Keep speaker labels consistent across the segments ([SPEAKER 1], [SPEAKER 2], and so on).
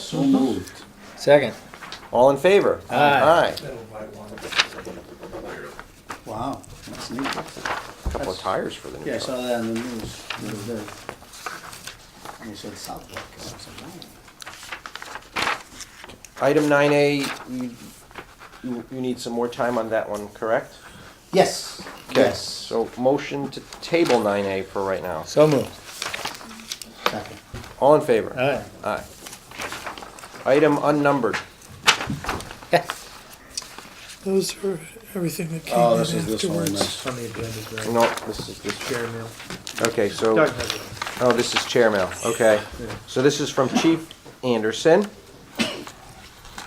[SPEAKER 1] So moved.
[SPEAKER 2] Second.
[SPEAKER 3] All in favor?
[SPEAKER 2] Aye.
[SPEAKER 3] Aye.
[SPEAKER 1] Wow, that's neat.
[SPEAKER 3] Couple of tires for the new
[SPEAKER 1] Yeah, I
[SPEAKER 3] truck.
[SPEAKER 1] saw that on the news the other day. And it said Southwick. and I said, wow.
[SPEAKER 3] Item nine A, you, you you need some more time on that one, correct?
[SPEAKER 1] Yes,
[SPEAKER 3] Okay,
[SPEAKER 1] yes.
[SPEAKER 3] So motion to table nine A for right now.
[SPEAKER 2] So moved.
[SPEAKER 1] Second.
[SPEAKER 3] All in favor?
[SPEAKER 2] Aye.
[SPEAKER 3] Aye. Item unnumbered.
[SPEAKER 4] Those are everything that came
[SPEAKER 1] Oh,
[SPEAKER 4] in
[SPEAKER 1] this is this one,
[SPEAKER 4] afterwards.
[SPEAKER 1] nice.
[SPEAKER 5] on the agenda, right?
[SPEAKER 3] No, this is, this,
[SPEAKER 5] Chair mail.
[SPEAKER 3] okay, so,
[SPEAKER 5] Doug has it.
[SPEAKER 3] oh, this is chair mail, okay. So this is from Chief Anderson.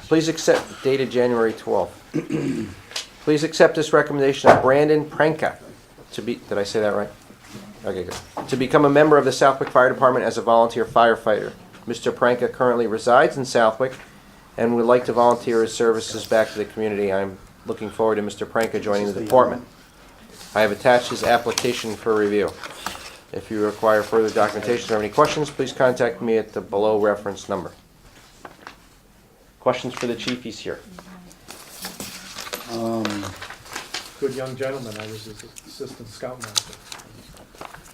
[SPEAKER 3] Please accept, dated January twelfth. Please accept this recommendation of Brandon Pranka to be, did I say that right? Okay, good. To become a member of the Southwick Fire Department as a volunteer firefighter. Mr. Pranka currently resides in Southwick and would like to volunteer his services back to the community. I'm looking forward to Mr. Pranka joining the department. I have attached his application for review. If you require further documentation or have any questions, please contact me at the below reference number. Questions for the chief, he's here.
[SPEAKER 5] Good young gentleman, I was his assistant scoutmaster.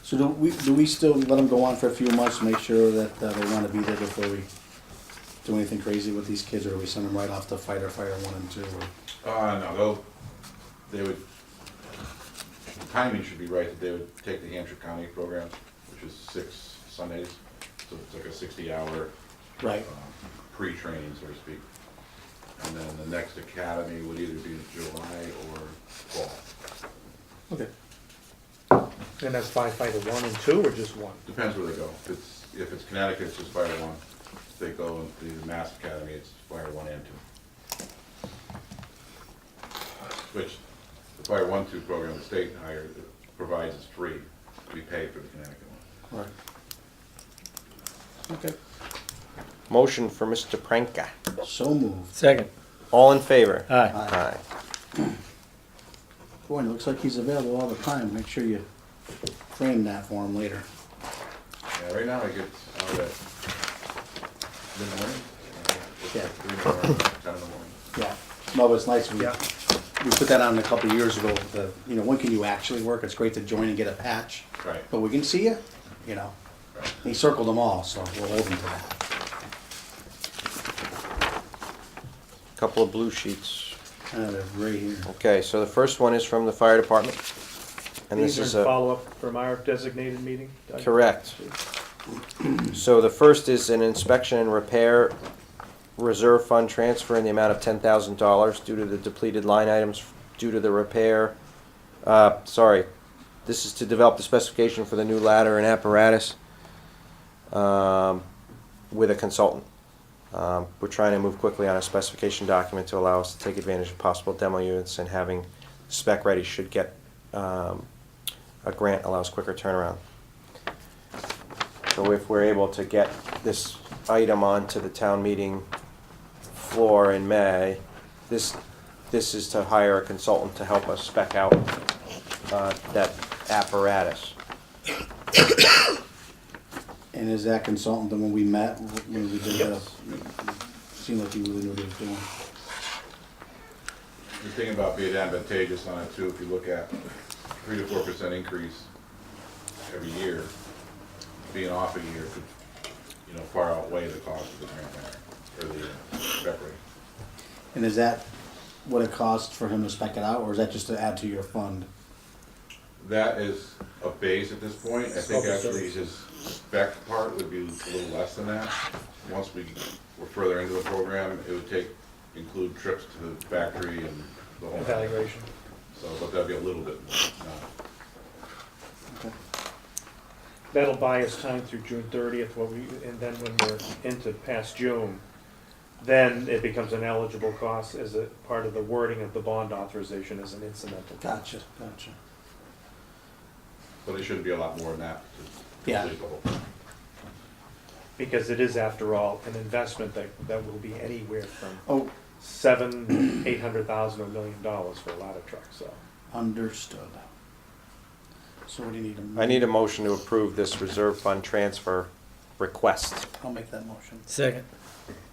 [SPEAKER 1] So do we, do we still let them go on for a few months to make sure that uh, they want to be there before we do anything crazy with these kids? Or we send them right off to fighter fire one and two? or-
[SPEAKER 6] Uh, no, they'll, they would, timing should be right, that they would take the Hampshire County program, which is six Sundays, so it's like a sixty-hour
[SPEAKER 1] Right,
[SPEAKER 6] pre-training, so to speak. And then the next academy would either be in July or fall,
[SPEAKER 1] okay.
[SPEAKER 5] And that's firefighter one and two, or just one?
[SPEAKER 6] depends where they go. If it's, if it's Connecticut, it's just fire one, if they go into the Mass Academy, it's fire one and two. Which, the fire one, two program, the state hire, provides is free, we pay for the Connecticut one.
[SPEAKER 1] Right. Okay,
[SPEAKER 3] Motion for Mr. Pranka.
[SPEAKER 1] so moved.
[SPEAKER 2] Second.
[SPEAKER 3] All in favor?
[SPEAKER 2] Aye.
[SPEAKER 3] Aye.
[SPEAKER 1] Boy, it looks like he's available all the time. Make sure you frame that for him later.
[SPEAKER 6] Yeah, right now I get out at mid-morning. uh, it's
[SPEAKER 1] Yeah.
[SPEAKER 6] like three in the morning, Ten in the morning.
[SPEAKER 1] Yeah. No, but it's nice. We,
[SPEAKER 5] Yeah.
[SPEAKER 1] we put that on a couple of years ago. The, you know, when can you actually work? It's great to join and get a patch.
[SPEAKER 6] Right.
[SPEAKER 1] But we can see you, you know.
[SPEAKER 6] Right.
[SPEAKER 1] He circled them all, so we'll hold him to that.
[SPEAKER 3] Couple of blue sheets.
[SPEAKER 1] Uh, they're right here.
[SPEAKER 3] Okay, so the first one is from the fire department. And this
[SPEAKER 5] These
[SPEAKER 3] is
[SPEAKER 5] are in
[SPEAKER 3] a,
[SPEAKER 5] follow-up from our designated meeting? Doug?
[SPEAKER 3] correct. So the first is an inspection and repair reserve fund transfer in the amount of ten thousand dollars due to the depleted line items due to the repair. Uh, sorry, this is to develop the specification for the new ladder and apparatus, um, with a consultant. Um, We're trying to move quickly on a specification document to allow us to take advantage of possible demo units and having spec ready should get, um, a grant allows quicker turnaround. So if we're able to get this item onto the town meeting floor in May, this, this is to hire a consultant to help us spec out, uh, that apparatus.
[SPEAKER 1] And is that consultant the one we met when we did the,
[SPEAKER 6] Yes.
[SPEAKER 1] seemed like he really knew what he was doing?
[SPEAKER 6] The thing about being advantageous on it too, if you look at three to four percent increase every year, being off a year could, you know, far outweigh the cost of the grant matter, or the uh, separator.
[SPEAKER 1] And is that what it cost for him to spec it out, or is that just to add to your fund?
[SPEAKER 6] That is a base at this point. I think
[SPEAKER 1] Okay,
[SPEAKER 6] actually his spec part would be a little less than that. Once we were further into the program, it would take, include trips to the factory and the whole.
[SPEAKER 5] Evaluation.
[SPEAKER 6] So, but that'd be a little bit more, not
[SPEAKER 1] Okay.
[SPEAKER 5] That'll buy us time through June thirtieth, what we, and then when we're into past June, then it becomes an eligible cost as a part of the wording of the bond authorization as an incidental.
[SPEAKER 1] Gotcha, gotcha.
[SPEAKER 6] But it shouldn't be a lot more than that to
[SPEAKER 1] Yeah.
[SPEAKER 6] complete the whole thing.
[SPEAKER 5] Because it is after all, an investment that, that will be anywhere from
[SPEAKER 1] Oh,
[SPEAKER 5] seven, eight hundred thousand, a million dollars for a lot of trucks, so.
[SPEAKER 1] Understood. So what do you need? a-
[SPEAKER 3] I need a motion to approve this reserve fund transfer request.
[SPEAKER 1] I'll make that motion.
[SPEAKER 2] Second.